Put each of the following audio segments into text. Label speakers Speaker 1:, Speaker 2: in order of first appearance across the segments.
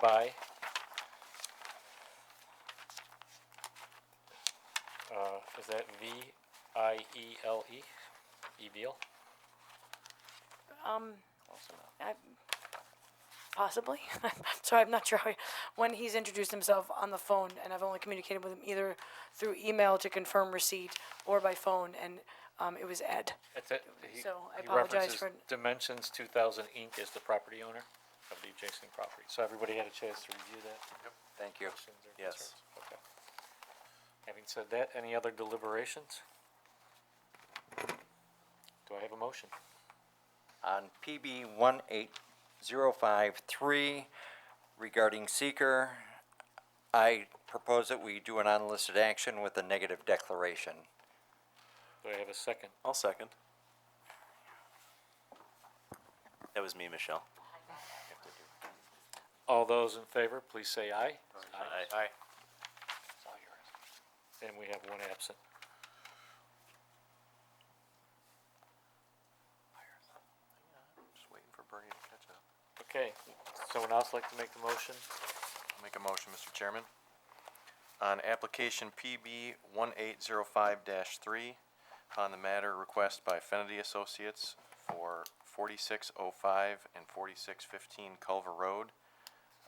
Speaker 1: by uh, is that V I E L E? Evil?
Speaker 2: Um,
Speaker 1: Close enough.
Speaker 2: I, possibly. I'm sorry, I'm not sure how, when he's introduced himself on the phone, and I've only communicated with him either through email to confirm receipt or by phone, and um, it was Ed.
Speaker 1: That's it. He-
Speaker 2: So I
Speaker 1: he
Speaker 2: apologize
Speaker 1: references
Speaker 2: for-
Speaker 1: Dimensions two thousand Inc. is the property owner of the adjacent property. So everybody had a chance to review that?
Speaker 3: Thank you.
Speaker 1: Questions or
Speaker 3: Yes.
Speaker 1: concerns? Okay. Having said that, any other deliberations? Do I have a motion?
Speaker 3: On PB one eight zero five three regarding seeker, I propose that we do an unlisted action with a negative declaration.
Speaker 1: Do I have a second?
Speaker 4: I'll second. That was me, Michelle.
Speaker 1: All those in favor, please say aye.
Speaker 4: Aye.
Speaker 1: And we have one absent.
Speaker 3: Just waiting for Bernie to catch up.
Speaker 1: Okay, someone else like to make the motion?
Speaker 5: I'll Make a motion, Mr. Chairman. On application PB one eight zero five three, on the matter request by Fennedy Associates for forty-six oh five and forty-six fifteen Culver Road,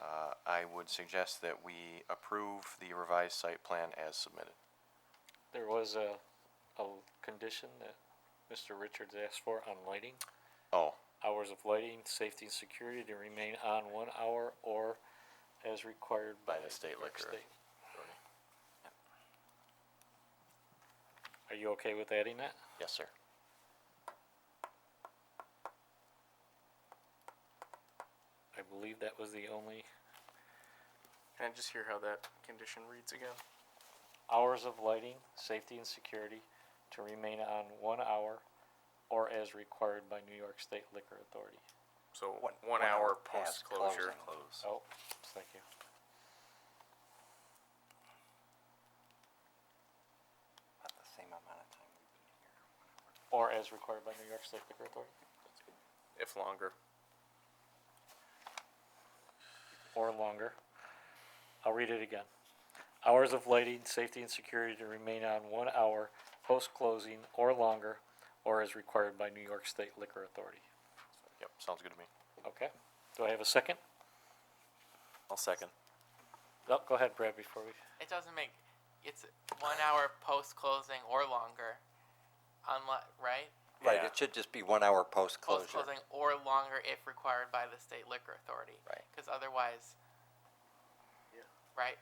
Speaker 5: uh, I would suggest that we approve the revised site plan as submitted.
Speaker 1: There was a, a condition that Mr. Richards asked for on lighting.
Speaker 5: Oh,
Speaker 1: Hours of lighting, safety and security to remain on one hour or as required by.
Speaker 5: By the state
Speaker 1: New York
Speaker 5: liquor
Speaker 1: State. Are you okay with adding that?
Speaker 5: yes, sir.
Speaker 1: I believe that was the only
Speaker 6: Can I just hear how that condition reads again?
Speaker 1: hours of lighting, safety and security to remain on one hour or as required by New York State Liquor Authority.
Speaker 6: So one, hour post closure.
Speaker 3: Close.
Speaker 1: Oh, thank you.
Speaker 3: About the same amount of time we've been here.
Speaker 1: Or as required by New York State Liquor Authority,
Speaker 6: if longer.
Speaker 1: or longer. I'll read it again. Hours of lighting, safety and security to remain on one hour post-closing or longer, or as required by New York State Liquor Authority.
Speaker 5: Yep, sounds good to me.
Speaker 1: Okay, do I have a second?
Speaker 4: I'll second.
Speaker 1: No, go ahead, Brad, before we.
Speaker 7: It doesn't make. It's one hour post closing or longer, unless right
Speaker 3: Right,
Speaker 4: Yeah.
Speaker 3: it should just be one hour post-closure.
Speaker 7: post closing or longer if required by the state liquor authority.
Speaker 3: Right.
Speaker 7: Because otherwise. Yeah. Right.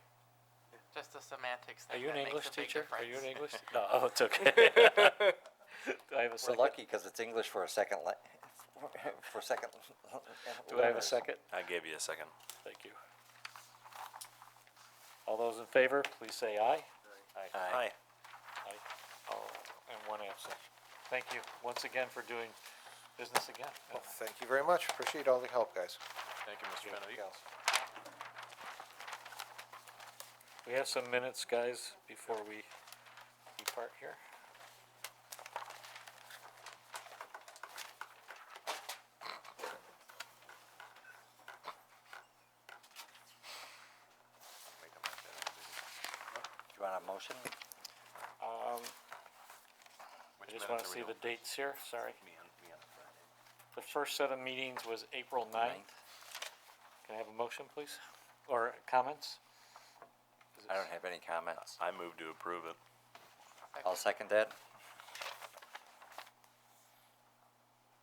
Speaker 7: Just a semantics
Speaker 1: Are
Speaker 7: thing.
Speaker 1: you an
Speaker 7: that makes
Speaker 1: English
Speaker 7: a big
Speaker 1: teacher? Are you an English?
Speaker 7: difference.
Speaker 1: No, oh, it's okay. Do I have a
Speaker 3: We're
Speaker 1: second?
Speaker 3: lucky because it's English for a second, la- for second.
Speaker 1: Do I have a
Speaker 3: letters.
Speaker 1: second?
Speaker 4: I gave you a second.
Speaker 1: Thank you. All those in favor, please say aye.
Speaker 3: Aye.
Speaker 1: Aye. All, uh, and one absent. Thank you once again for doing business again.
Speaker 8: Thank you very much. Appreciate all the help, guys.
Speaker 5: Thank you, Mr. Fennedy.
Speaker 1: We have some minutes, guys, before we depart here.
Speaker 3: Do you want a motion?
Speaker 1: Um,
Speaker 5: Which
Speaker 1: I just
Speaker 5: minutes
Speaker 1: wanna
Speaker 5: are
Speaker 1: see
Speaker 5: we
Speaker 1: the
Speaker 5: doing?
Speaker 1: dates here, sorry.
Speaker 3: Me on, me on Friday.
Speaker 1: The first set of meetings was April ninth. Can I have a motion, please? Or comments? Is it-
Speaker 3: I don't have any comments.
Speaker 4: I move to approve it.
Speaker 3: I'll second that.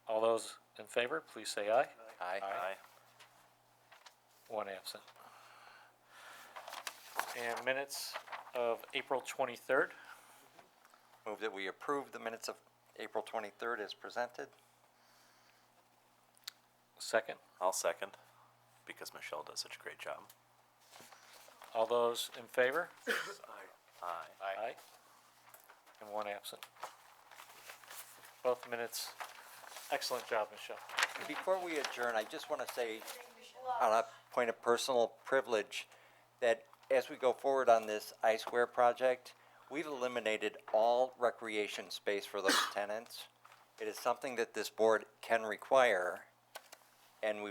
Speaker 1: All those in favor, please say aye.
Speaker 3: Aye.
Speaker 1: One absent. And minutes of April twenty-third.
Speaker 3: Move that we approve the minutes of April twenty-third as presented.
Speaker 1: Second,
Speaker 4: I'll second, because Michelle does such a great job.
Speaker 1: all those in favor?
Speaker 4: Aye.
Speaker 1: Aye. And one absent. Both minutes. Excellent job, Michelle.
Speaker 3: Before we adjourn, I just want to say, on a point of personal privilege, that as we go forward on this I Square project, we've eliminated all recreation space for those tenants. It is something that this board can require, and we